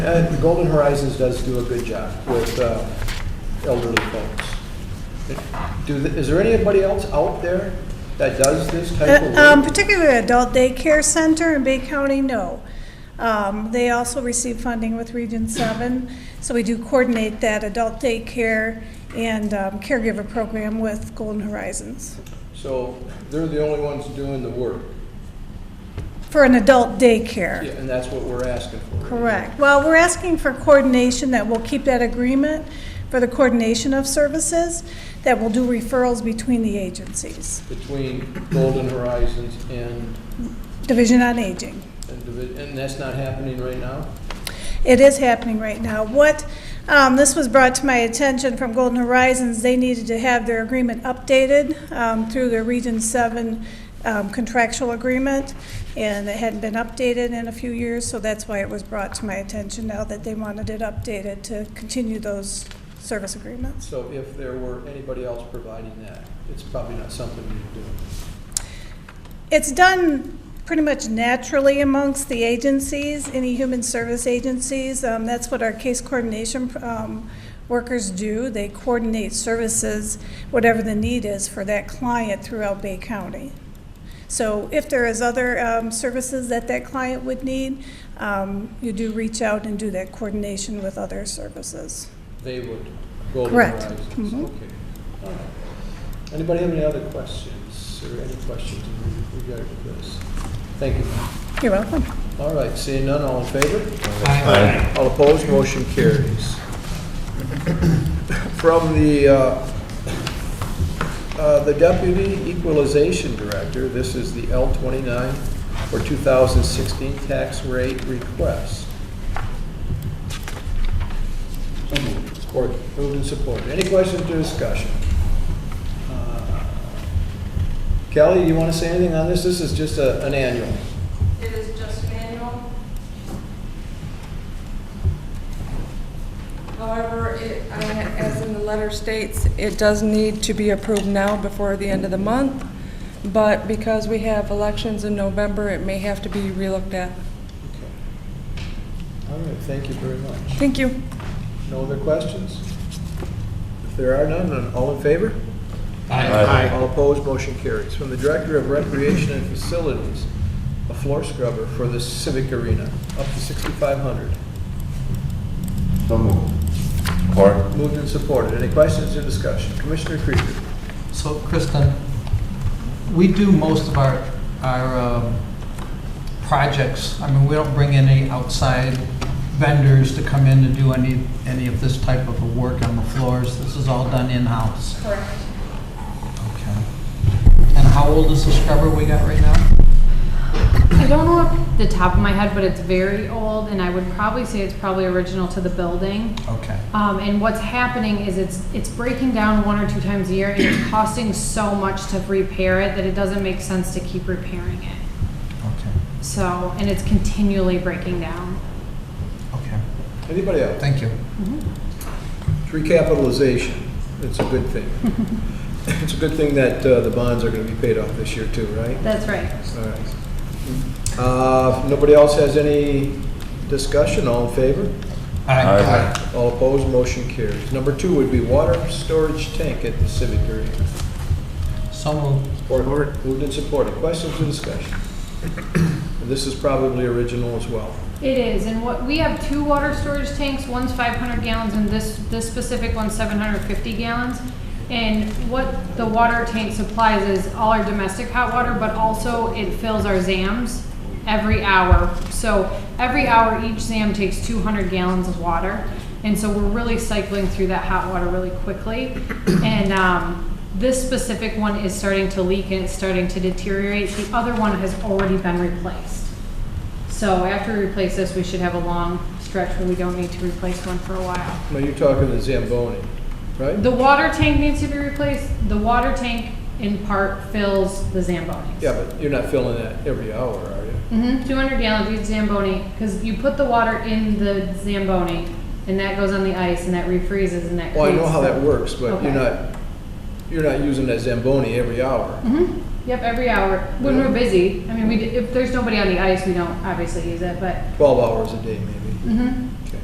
Uh, Golden Horizons does do a good job with uh, elderly folks. Do, th- is there anybody else out there that does this type of Uh, um, work? Particularly adult daycare center in Bay County, no. Um, They also receive funding with Region 7, so we do coordinate that adult daycare and um, caregiver program with Golden Horizons So they're the only ones doing the work, for an adult daycare. Yeah, and that's what we're asking for. Correct. Well, we're asking for coordination, that we'll keep that agreement for the coordination of services, that we'll do referrals between the agencies, Between Golden Horizons and, Division on Aging. and divi- and that's not happening right now? It is happening right now. What, um, this was brought to my attention from Golden Horizons, they needed to have their agreement updated um, through their Region 7 um, contractual agreement, and it hadn't been updated in a few years, so that's why it was brought to my attention now that they wanted it updated to continue those service agreements. So if there were anybody else providing that, it's probably not something we do. It's done pretty much naturally amongst the agencies, any human service agencies. Um, That's what our case coordination um, workers do. They coordinate services, whatever the need is for that client throughout Bay County. So if there is other um, services that that client would need, um, you do reach out and do that coordination with other services. They would. Golden Correct. Horizons, Mhm. okay. All right. Anybody have any other questions or any questions in regard to this? Thank you. You're welcome. All right, seeing none, all in favor? Aye. All opposed, motion carries. From the, uh, uh, the Deputy Equalization Director, this is the L-29 for 2016 tax rate request. Support. Moved and supported. Any questions or discussion? Uh, Kelly, you want to say anything on this? This is just a- an annual. It is just manual. However, it, I- as in the letter states, it does need to be approved now before the end of the month, but because we have elections in November, it may have to be relooked Okay. at. All right, thank you very much. Thank you. No other questions? If there are none, then all in favor? Aye. All opposed, motion carries. From the Director of Recreation and Facilities, a floor scrubber for the Civic Arena, up to 6,500. So moved. Support. Moved and supported. Any questions or discussion? Commissioner Krieger. So Kristen, we do most of our, our um, projects, I mean, we don't bring any outside vendors to come in to do any, any of this type of a work on the floors. This is all done in-house. Correct. Okay. And how old is the scrubber we got right now? I don't know off the top of my head, but it's very old, and I would probably say it's probably original to the building. Okay. Um, and what's happening is it's, it's breaking down one or two times a year, and it's costing so much to repair it that it doesn't make sense to keep repairing it. Okay, So, and it's continually breaking down. okay. Anybody else? Thank you. It's Recapitalization. It's a good thing. It's a good thing that uh, the bonds are going to be paid off this year too, right? That's right. All right. Uh, if Nobody else has any discussion? All in favor? Aye. All opposed, motion carries. Number two would be water storage tank at the Civic Arena. So moved. Support. Moved and supported. Questions or discussion? And This is probably original as well. It is, and what, we have two water storage tanks, one's five hundred gallons, and this, this specific one's seven hundred fifty gallons. And what the water tank supplies is all our domestic hot water, but also it fills our ZAMs every hour. So every hour, each ZAM takes two hundred gallons of water, and so we're really cycling through that hot water really quickly. And, um, this specific one is starting to leak and it's starting to deteriorate, the other one has already been replaced. So after we replace this, we should have a long stretch where we don't need to replace one for a while. Now, you're talking the Zamboni, right? The water tank needs to be replaced. The water tank in part fills the Zamboni. Yeah, but you're not filling that every hour, are you? Mm-hmm, two hundred gallons each Zamboni, because you put the water in the Zamboni and that goes on the ice and that refreezes and that creates. Well, I know how that the- works, but you're Okay. not, you're not using that Zamboni every hour. Mhm. Yep, every hour, when Yeah. we're busy. I mean, we, d- if there's nobody on the ice, we don't obviously use it, but, 12 hours a day, maybe. mhm,